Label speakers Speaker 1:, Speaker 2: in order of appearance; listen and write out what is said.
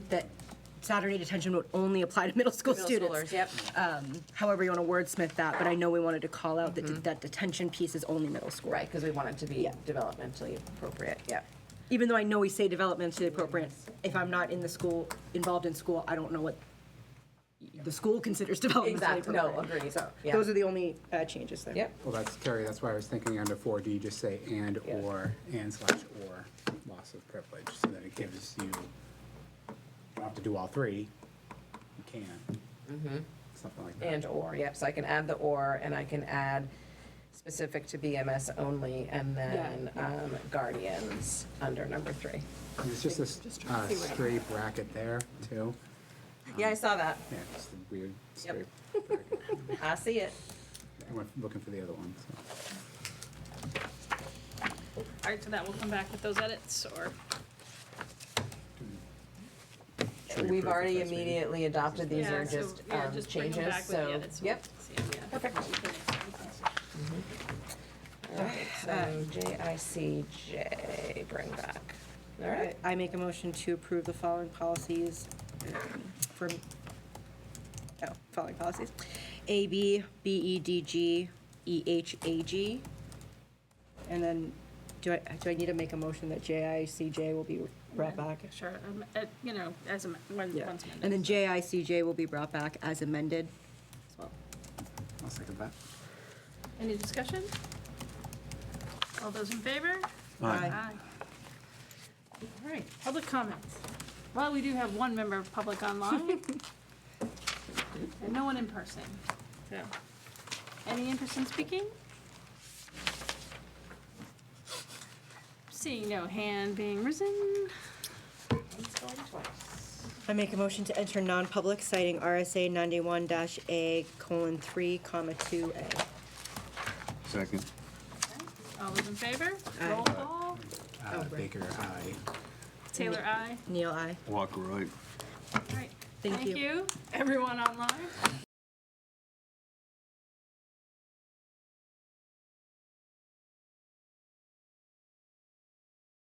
Speaker 1: that Saturday detention would only apply to middle school students.
Speaker 2: Yep.
Speaker 1: However, you want to wordsmith that, but I know we wanted to call out that, that detention piece is only middle school.
Speaker 2: Right, because we want it to be developmentally appropriate, yep.
Speaker 1: Even though I know we say developmentally appropriate, if I'm not in the school, involved in school, I don't know what the school considers developmentally appropriate.
Speaker 2: Exactly, no, agreed,
Speaker 1: So,
Speaker 2: yeah.
Speaker 1: those are the only uh, changes there.
Speaker 2: Yep,
Speaker 3: Well, that's, Terry, that's why I was thinking under 4D, just say
Speaker 2: Yeah.
Speaker 3: and/or, and slash or, loss of privilege, so that it gives you, you don't have to do all three, you can.
Speaker 2: Mm-hmm.
Speaker 3: Something like that.
Speaker 2: and/or, yep, so I can add the or, and I can add specific to BMS only, and then um, guardians under number three.
Speaker 3: And It's just a s- uh, straight bracket there, too.
Speaker 2: Yeah, I saw that,
Speaker 3: Yeah, just a weird straight bracket.
Speaker 2: I see it.
Speaker 3: I went looking for the other one, so.
Speaker 4: All right, so that will come back with those edits, or,
Speaker 3: Should we approve
Speaker 2: We've
Speaker 3: the
Speaker 2: already
Speaker 3: first reading?
Speaker 2: immediately adopted, these
Speaker 4: yeah,
Speaker 2: are
Speaker 4: so,
Speaker 2: just
Speaker 4: yeah,
Speaker 2: um,
Speaker 4: just bring them
Speaker 2: changes,
Speaker 4: back with the
Speaker 2: so,
Speaker 4: edits. so
Speaker 2: yep.
Speaker 4: we can see 'em, yeah.
Speaker 2: All right, so JICJ, bring back. All right,
Speaker 1: I make a motion to approve the following policies for, oh, following policies. A, B, B, E, D, G, E, H, A, G. And then, do I, do I need to make a motion that J, I, C, J will be brought back?
Speaker 4: Sure, um, uh, you know, as, am- when-
Speaker 1: Yeah.
Speaker 4: once
Speaker 1: And then
Speaker 4: amended
Speaker 1: J, I, C, J will be brought back as amended.
Speaker 4: as well.
Speaker 3: I'll second that.
Speaker 4: Any discussion? All those in favor?
Speaker 1: Aye.
Speaker 4: All right, public comments. Well, we do have one member of public online. And no one in person. So, Any in-person speaking? Seeing no hand being risen.
Speaker 2: Once, going twice.
Speaker 1: I make a motion to enter non-public citing RSA ninety-one dash A colon three comma two A.
Speaker 5: Second.
Speaker 4: All those in favor?
Speaker 1: Aye.
Speaker 4: Roll call.
Speaker 2: Oh,
Speaker 3: Uh, Baker, aye.
Speaker 4: Taylor, aye.
Speaker 1: Neil, I.
Speaker 5: Walker, right.
Speaker 4: All right.
Speaker 1: Thank you.
Speaker 4: Thank you, everyone online.